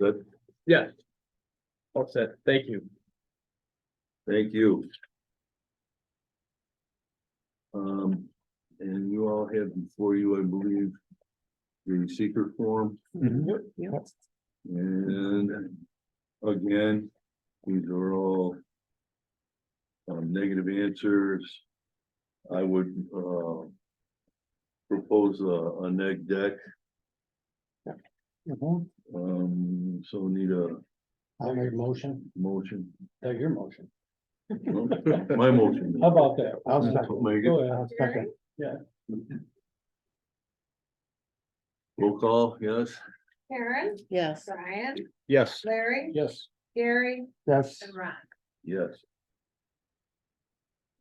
Good. Yeah. All set, thank you. Thank you. Um, and you all have before you, I believe, the secret form and again, these are all um, negative answers. I would, uh, propose a, a neg deck, Mhm. um, so need a I'll make a motion, motion. that's your motion. My motion. How about that? I'll second. Make it. Go ahead, I'll second. Roll call, yes? Karen, Yes, Brian, Yes. Larry, Yes, Gary, that's, and Ron. Yes.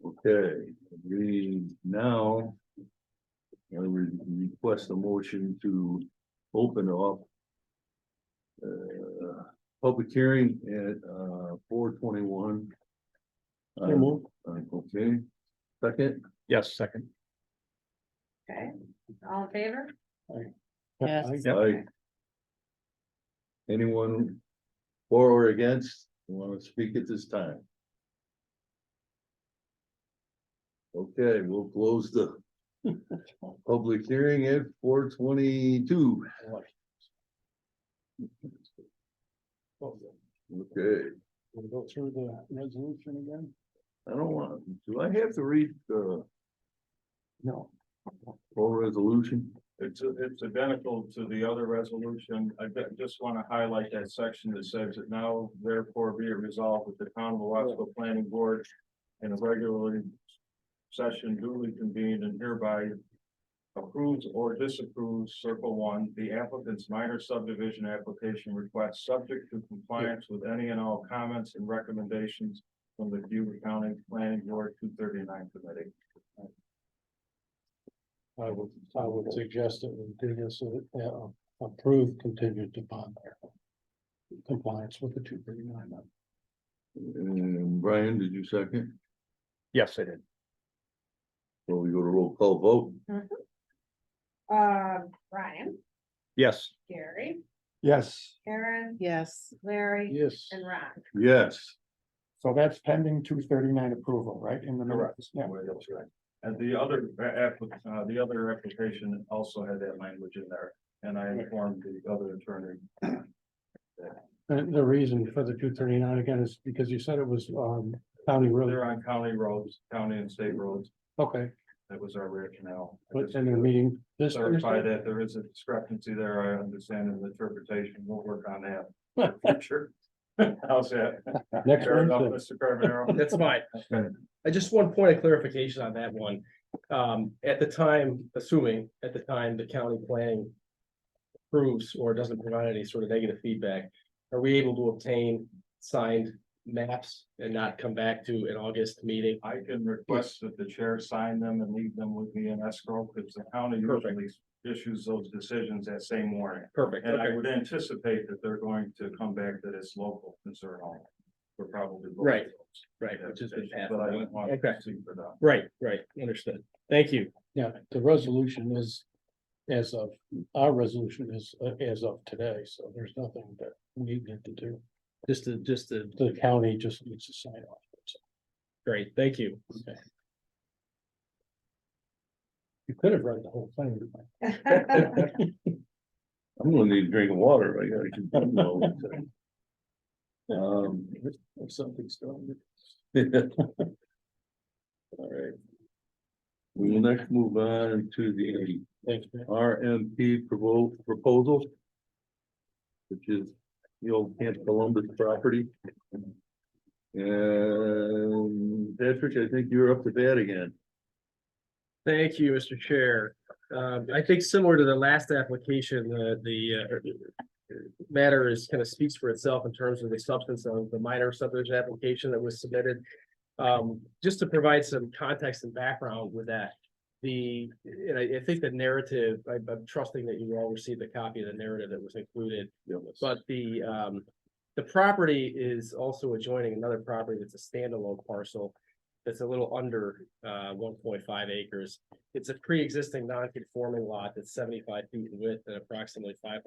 Okay, we now. I would request a motion to open up. Uh, public hearing at uh four twenty-one. Uh, so move. Okay, second, Yes, second. Okay, all in favor? Yes. I- I. Anyone for or against want to speak at this time? Okay, we'll close the public hearing at four twenty-two. Oh, Okay, We'll go through the resolution again? I don't want, do I have to read the No. whole resolution? It's, it's identical to the other resolution. I ju- just want to highlight that section that says that now therefore be it resolved with the town of Wasco Planning Board in a regularly session duly convened and hereby approves or disapproves, circle one, the applicant's minor subdivision application request subject to compliance with any and all comments and recommendations from the Butte County Planning Board two thirty-nine committee. I would, I would suggest that we do this, uh, uh, approved contingent upon their compliance with the two thirty-nine. And Brian, did you second? Yes, I did. So we go to roll call vote? Um, Brian, Yes. Gary, Yes. Karen, yes, Larry, Yes, and Ron. Yes. so that's pending two thirty-nine approval, right, in the notice? Yeah. And the other, a- app- uh, the other application also had that language in there, and I informed the other attorney. And the reason for the two thirty-nine again is because you said it was, um, county road, They're on county roads, county and state roads, okay, that was our rationale. I but just in the meeting this Clarify Thursday? that there is a discrepancy there, I understand in the interpretation, we'll work on that. in the Future. How's that? Next Fair enough, Wednesday, Mr. Carbonaro? That's fine. I just one point of clarification on that one. Um, at the time, assuming at the time the county planning approves or doesn't provide any sort of negative feedback, are we able to obtain signed maps and not come back to an August meeting? I can request that the chair sign them and leave them with me in escrow, because the county Perfect. usually issues those decisions that same morning. Perfect, And I okay, would anticipate that they're going to come back that it's local concern only. We're probably. both of Right, those. right, which has been passed. But I wouldn't want to Okay. proceed for that. Right, right, understood. Thank you. yeah, the resolution is as of, our resolution is uh, as of today, so there's nothing that we need to do. Just to, just uh, to, The county just needs to sign off. great, thank you. You could have read the whole thing. I'm gonna need a drink of water, I gotta keep them all. Um, If something's stronger. All right. We will next move on to the Thanks, man. RMP provo- proposal. Which is the old Camp Columbus property. And Patrick, I think you're up to bat again. Thank you, Mr. Chair. Um, I think similar to the last application, the, the uh, matter is kind of speaks for itself in terms of the substance of the minor subdivision application that was submitted. Um, just to provide some context and background with that, the, and I, I think the narrative, I- I'm trusting that you all received a copy of the narrative that was included. But the, um, the property is also adjoining another property that's a standalone parcel. That's a little under, uh, one point five acres. It's a pre-existing non-conforming lot that's seventy-five feet in width and approximately five